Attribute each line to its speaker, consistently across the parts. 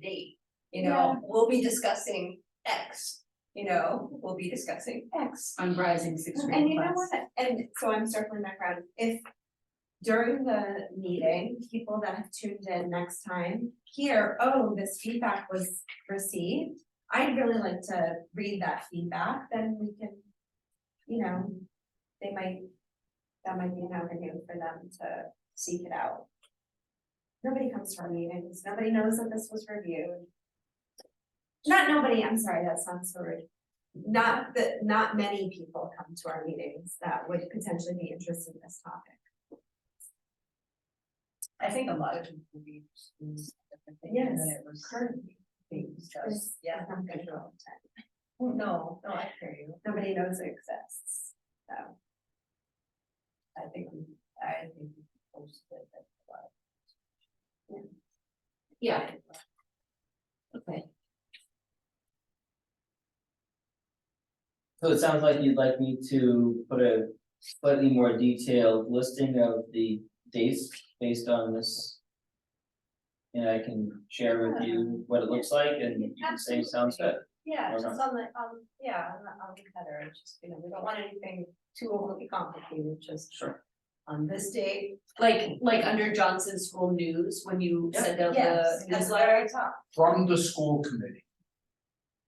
Speaker 1: the date. You know, we'll be discussing X, you know, we'll be discussing X.
Speaker 2: on rising six grade class.
Speaker 1: And you know what, and so I'm circling back around, if during the meeting, people that have tuned in next time hear, oh, this feedback was received. I'd really like to read that feedback, then we can, you know, they might, that might be an avenue for them to seek it out. Nobody comes to our meetings, nobody knows that this was reviewed. Not nobody, I'm sorry, that sounds so rude not that, not many people come to our meetings that would potentially be interested in this topic.
Speaker 3: I think a lot of people believe. it's-
Speaker 1: Yes,
Speaker 3: That it was.
Speaker 1: currently.
Speaker 3: Things
Speaker 1: There's-
Speaker 3: just, yeah. Oh,
Speaker 1: That's not good all the time.
Speaker 3: No, no, I hear you.
Speaker 1: Nobody knows it exists, so.
Speaker 3: I think, we- I think we posted it. that's why.
Speaker 2: Yeah. Okay,
Speaker 4: So it sounds like you'd like me to put a slightly more detailed listing of the dates based on this. And I can share with you what it looks like and you can say sounds good.
Speaker 3: Yeah,
Speaker 4: Why
Speaker 3: just on the, um, yeah, on the, on the header, it's just, you know, we don't want anything too overly complicated, just
Speaker 4: Sure.
Speaker 3: on this date.
Speaker 2: like, like under Johnson School News, when you
Speaker 4: Yeah.
Speaker 2: send out the newsletter,
Speaker 3: I talk.
Speaker 5: from the school committee.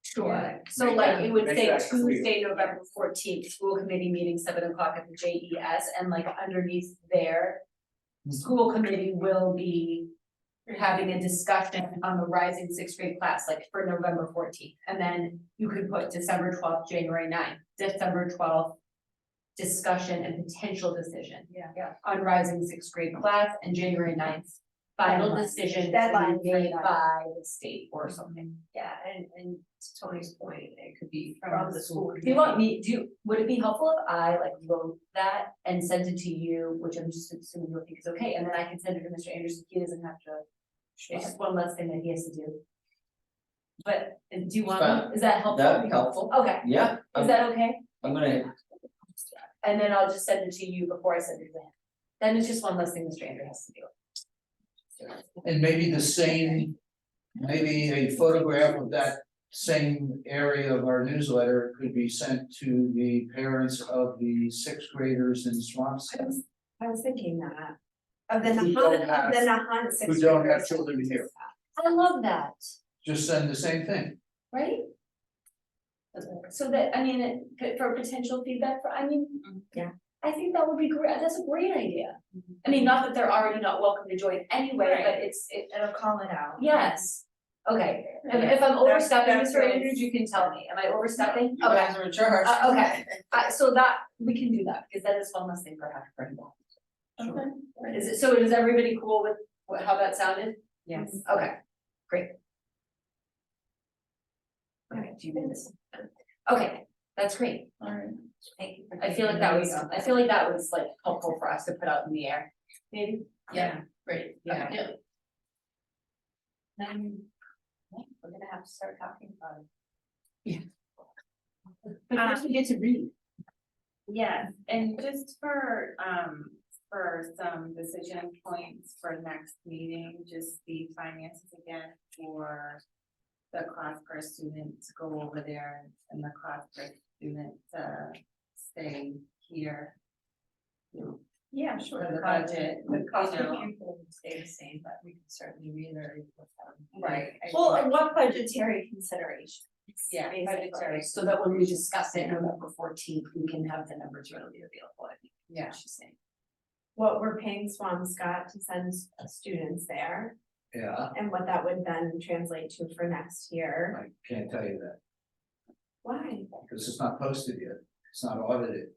Speaker 2: sure.
Speaker 3: Yeah.
Speaker 2: So like, it would
Speaker 5: Make
Speaker 2: say
Speaker 5: that clear.
Speaker 2: Tuesday, November fourteenth, school committee meeting, seven o'clock at the J E S, and like underneath there. School committee will be having a discussion on the rising sixth grade class, like for November fourteenth. And then you could put December twelfth, January 9th, December twelfth. Discussion and potential decision.
Speaker 3: Yeah.
Speaker 2: on rising sixth grade class and January 9th Final
Speaker 3: Deadline.
Speaker 2: decision
Speaker 3: Deadline
Speaker 2: to
Speaker 3: for
Speaker 2: be made
Speaker 3: that.
Speaker 2: by the state or something.
Speaker 3: Yeah, and, and to Tony's point, it could be from the school.
Speaker 2: Do you want me, do, you- would it be helpful if I like wrote that and sent it to you, which I'm just assuming you'll think is okay, and then I can send it to Mr. Anderson, he doesn't have to. It's just one less thing that he has to do. But uh, do you
Speaker 4: Fine.
Speaker 2: want, is that helpful?
Speaker 4: That'd be helpful. Um,
Speaker 2: Okay,
Speaker 4: Yeah,
Speaker 2: is
Speaker 4: I'm,
Speaker 2: that okay?
Speaker 4: I'm gonna,
Speaker 2: And then I'll just send it to you before I send it to him. Then it's just one less thing Mr. Andrew has to do.
Speaker 5: And maybe the same, maybe a photograph of that same area of our newsletter could be sent to the parents of the sixth graders in
Speaker 1: I
Speaker 5: Swampscott.
Speaker 1: was, I was thinking that, of the
Speaker 5: Who
Speaker 1: Nahant,
Speaker 5: don't
Speaker 1: of the
Speaker 5: have-
Speaker 1: Nahant six.
Speaker 5: who don't have children here.
Speaker 2: I love that.
Speaker 5: Just send the same thing.
Speaker 2: right? So that, I mean, it- but for potential feedback for, I mean.
Speaker 1: Mm-hmm. Yeah. Mm-hmm.
Speaker 2: I think that would be great, that's a great idea. I mean, not that they're already not welcome to join anyway, but
Speaker 1: Right.
Speaker 2: it's, it,
Speaker 1: It'll call it out.
Speaker 2: yes, okay. And
Speaker 3: Yeah.
Speaker 2: if I'm overstepping,
Speaker 1: that's
Speaker 2: Mr.
Speaker 1: nice.
Speaker 2: Andrews, you can tell me, am I overstepping?
Speaker 4: you
Speaker 2: Okay,
Speaker 4: guys are in charge.
Speaker 2: Uh, okay, Uh, so that, we can do that, because that is one less thing for half for him.
Speaker 3: Okay.
Speaker 2: Is it, so is everybody cool with what, how that sounded? Mm-hmm.
Speaker 3: Yes.
Speaker 2: Okay, great. Okay, do you minutes. Okay, that's great.
Speaker 4: Alright,
Speaker 2: Thank you. I feel like that was, I feel like that was like helpful for us to put out in the air, maybe?
Speaker 3: Yeah,
Speaker 2: great,
Speaker 3: yeah.
Speaker 2: Yeah.
Speaker 3: Then, yeah, we're gonna have to start talking about it.
Speaker 2: But
Speaker 6: first
Speaker 2: we get to read.
Speaker 6: Yes, and just for, um, for some decision points for next meeting, just the finances again for the cost per student to go over there and the cost per student to stay here.
Speaker 3: Yeah, sure.
Speaker 6: For the
Speaker 3: cost-
Speaker 6: budget,
Speaker 3: The cost
Speaker 6: you know.
Speaker 3: of people would stay the same, but we can certainly reiterate with them.
Speaker 6: I
Speaker 1: Well,
Speaker 6: think-
Speaker 1: and what budgetary considerations?
Speaker 6: Yeah,
Speaker 1: basically.
Speaker 6: budgetary,
Speaker 2: So that when we discuss it November fourteenth, we can have the numbers readily available, I think,
Speaker 6: yeah,
Speaker 2: she's saying.
Speaker 1: What we're paying Swampscott to send students there
Speaker 5: Yeah,
Speaker 1: and what that would then translate to for next year.
Speaker 5: I can't tell you that,
Speaker 1: Why?
Speaker 5: because it's not posted yet, it's not audited.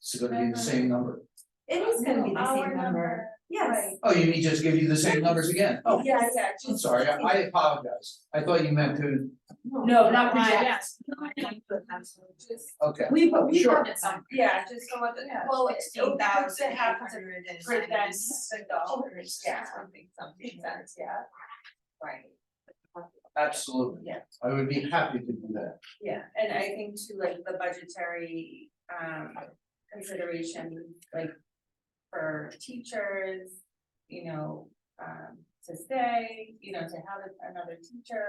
Speaker 5: It's gonna be the same number.
Speaker 1: It is gonna be the
Speaker 6: Our
Speaker 1: same number. Yes.
Speaker 6: right.
Speaker 5: Oh, you mean just give you the same numbers again? Oh,
Speaker 1: Yes.
Speaker 6: yeah,
Speaker 5: I'm sorry, I I apologize. I thought you meant to,
Speaker 2: No, not
Speaker 6: Why,
Speaker 2: project,
Speaker 6: Just,
Speaker 5: okay.
Speaker 2: we, but we
Speaker 5: Sure.
Speaker 2: have it some.
Speaker 6: yeah, just so what the,
Speaker 3: Yeah.
Speaker 6: well,
Speaker 3: It's
Speaker 6: it's eight thousand eight
Speaker 3: have to
Speaker 6: hundred and
Speaker 3: present
Speaker 6: ninety
Speaker 3: the
Speaker 6: dollars, yeah,
Speaker 3: Something, something, that's, yeah.
Speaker 6: right.
Speaker 5: Absolutely.
Speaker 6: Yeah.
Speaker 5: I would be happy to do that.
Speaker 6: Yeah, and I think too, like the budgetary um consideration, like for teachers, you know, um
Speaker 3: to stay, you know, to have another teacher